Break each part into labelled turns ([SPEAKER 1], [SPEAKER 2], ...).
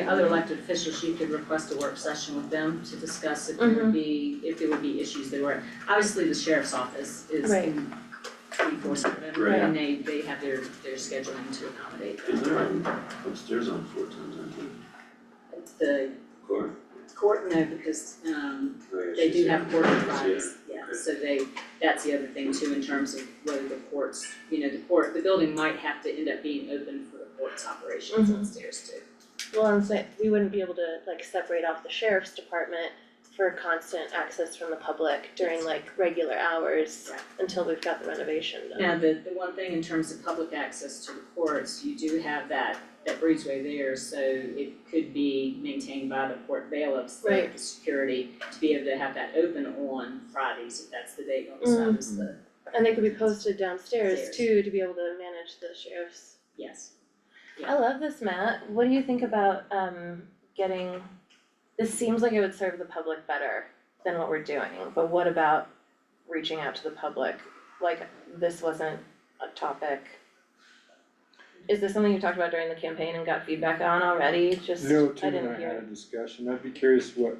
[SPEAKER 1] And other elected officials, you could request a work session with them to discuss if there would be, if there would be issues they were. Obviously, the sheriff's office is
[SPEAKER 2] Right.
[SPEAKER 1] in twenty-four seven,
[SPEAKER 3] Right.
[SPEAKER 1] and they, they have their, their scheduling to accommodate
[SPEAKER 3] Is there on upstairs on four times, I think,
[SPEAKER 1] the
[SPEAKER 3] court?
[SPEAKER 1] court, no, because, um,
[SPEAKER 3] Oh, yeah,
[SPEAKER 1] they
[SPEAKER 3] she's
[SPEAKER 1] do
[SPEAKER 3] here.
[SPEAKER 1] have court
[SPEAKER 3] She's
[SPEAKER 1] Fridays, yeah,
[SPEAKER 3] okay.
[SPEAKER 1] so they, that's the other thing too, in terms of whether the courts, you know, the court, the building might have to end up being open for the court's operations
[SPEAKER 2] Mhm.
[SPEAKER 1] upstairs too.
[SPEAKER 2] Well, and so we wouldn't be able to like separate off the sheriff's department for constant access from the public during like regular hours
[SPEAKER 1] Right.
[SPEAKER 2] until we've got the renovation done.
[SPEAKER 1] Now, the, the one thing in terms of public access to the courts, you do have that, that breezeway there, so it could be maintained by the court bailiffs, the,
[SPEAKER 2] Right.
[SPEAKER 1] the security, to be able to have that open on Fridays, if that's the date on the side is the,
[SPEAKER 2] Mm. And they could be posted downstairs
[SPEAKER 1] Stairs.
[SPEAKER 2] too to be able to manage the sheriff's.
[SPEAKER 1] yes.
[SPEAKER 2] I love this, Matt. What do you think about um getting, this seems like it would serve the public better than what we're doing, but what about reaching out to the public? Like, this wasn't a topic. Is this something you talked about during the campaign and got feedback on already? Just, I
[SPEAKER 4] No, Tim and
[SPEAKER 2] didn't
[SPEAKER 4] I had a
[SPEAKER 2] hear.
[SPEAKER 4] discussion, I'd be curious what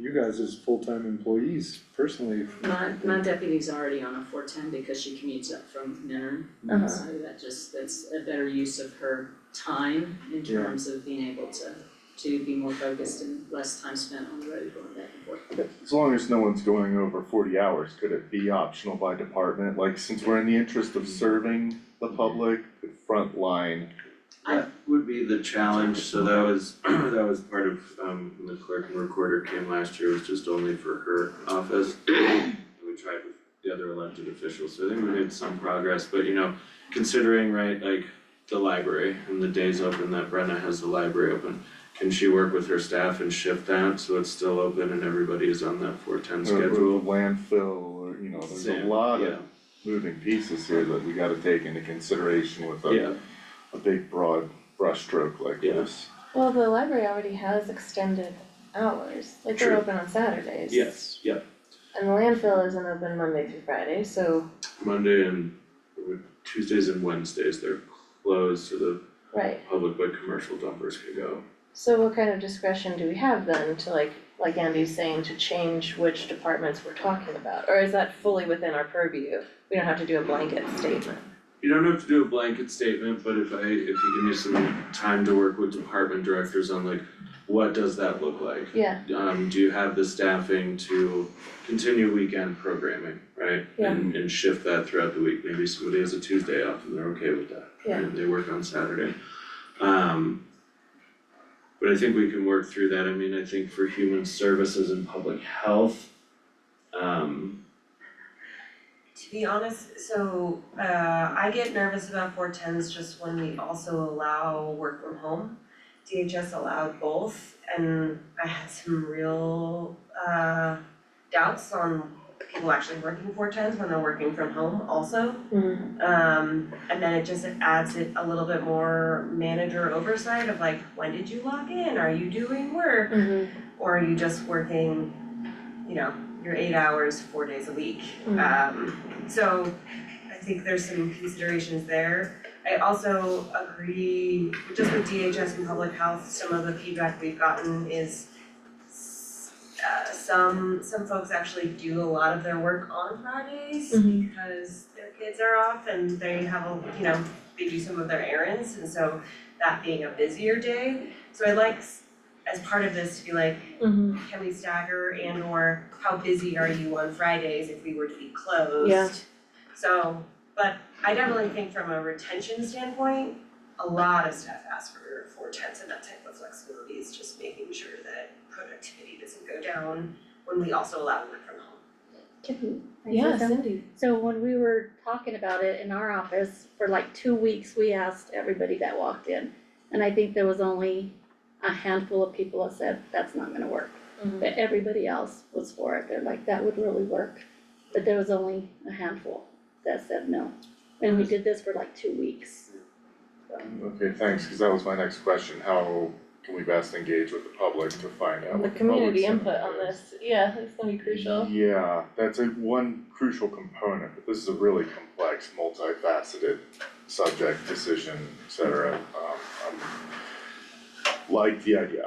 [SPEAKER 4] you guys as full-time employees personally. if-
[SPEAKER 1] My, my deputy's already on a four ten because she commutes up from Nern,
[SPEAKER 2] Uh-huh.
[SPEAKER 1] so that just, that's a better use of her time in
[SPEAKER 4] Yeah.
[SPEAKER 1] terms of being able to, to be more focused and less time spent on the road going back and forth.
[SPEAKER 5] As long as no one's going over forty hours, could it be optional by department, like since we're in the interest of serving the public, the front line?
[SPEAKER 3] That would be the challenge, so that was, that was part of, um, when the clerk and recorder came last year, it was just only for her office. And we tried with the other elected officials, so I think we made some progress, but you know, considering, right, like the library and the days open that Brenna has the library open, can she work with her staff and shift that so it's still open and everybody is on that four ten
[SPEAKER 5] or- or the
[SPEAKER 3] schedule?
[SPEAKER 5] Landfill, or, you know, there's a
[SPEAKER 3] Same,
[SPEAKER 5] lot
[SPEAKER 3] yeah.
[SPEAKER 5] of moving pieces here that we gotta take into consideration with
[SPEAKER 3] Yeah,
[SPEAKER 5] a, a big broad brushstroke like
[SPEAKER 3] Yeah.
[SPEAKER 5] this.
[SPEAKER 2] Well, the library already has extended hours, like
[SPEAKER 3] they're
[SPEAKER 2] they're
[SPEAKER 3] True.
[SPEAKER 2] open on Saturdays.
[SPEAKER 3] yes, yeah,
[SPEAKER 2] And the landfill isn't open Monday through Friday, so,
[SPEAKER 3] Monday and Tuesdays and Wednesdays, they're closed to the
[SPEAKER 2] right.
[SPEAKER 3] public but commercial dumpers could go.
[SPEAKER 2] So what kind of discretion do we have then to like, like Andy's saying, to change which departments we're talking about? Or is that fully within our purview? We don't have to do a blanket statement.
[SPEAKER 3] You don't have to do a blanket statement, but if I, if you give me some time to work with department directors on like, what does that look like?
[SPEAKER 2] Yeah,
[SPEAKER 3] Um, do you have the staffing to continue weekend programming, right?
[SPEAKER 2] Yeah.
[SPEAKER 3] And and shift that throughout the week, maybe somebody has a Tuesday off and they're okay with that,
[SPEAKER 2] Yeah.
[SPEAKER 3] and they work on Saturday. Um. But I think we can work through that, I mean, I think for human services and public health, um,
[SPEAKER 6] To be honest, so uh I get nervous about four tens just when we also allow work from home. DHS allowed both and I had some real uh doubts on people actually working four tens when they're working from home also. Um and then it just adds it a little bit more manager oversight of like, when did you log in? Are you doing work? or are you just working, you know, your eight hours, four days a week?
[SPEAKER 2] Mm.
[SPEAKER 6] Um, so I think there's some considerations there. I also agree, just with DHS and public health, some of the feedback we've gotten is s- uh, some, some folks actually do a lot of their work on Fridays
[SPEAKER 2] Mhm.
[SPEAKER 6] because their kids are off and they have a, you know, they do some of their errands and so that being a busier day. So I like s- as part of this to be like, can we stagger and or how busy are you on Fridays if we were to be closed?
[SPEAKER 2] Yeah.
[SPEAKER 6] So, but I definitely think from a retention standpoint, a lot of staff ask for four tenths and that type of flexibility is just making sure that productivity doesn't go down when we also allow work from home.
[SPEAKER 7] Can I say
[SPEAKER 2] Yeah,
[SPEAKER 7] something?
[SPEAKER 2] Cindy.
[SPEAKER 7] So when we were talking about it in our office, for like two weeks, we asked everybody that walked in. And I think there was only a handful of people that said, that's not gonna work.
[SPEAKER 2] Mhm.
[SPEAKER 7] But everybody else was for it, they're like, that would really work. But there was only a handful that said no. And we did this for like two weeks.
[SPEAKER 5] Okay, thanks, cause that was my next question, how can we best engage with the public to find out
[SPEAKER 2] The
[SPEAKER 5] what the public
[SPEAKER 2] community input
[SPEAKER 5] sentiment
[SPEAKER 2] on
[SPEAKER 5] is?
[SPEAKER 2] this, yeah, it's gonna be crucial.
[SPEAKER 5] Yeah, that's a one crucial component, but this is a really complex, multifaceted subject, decision, et cetera. Um, I'm um, like the idea,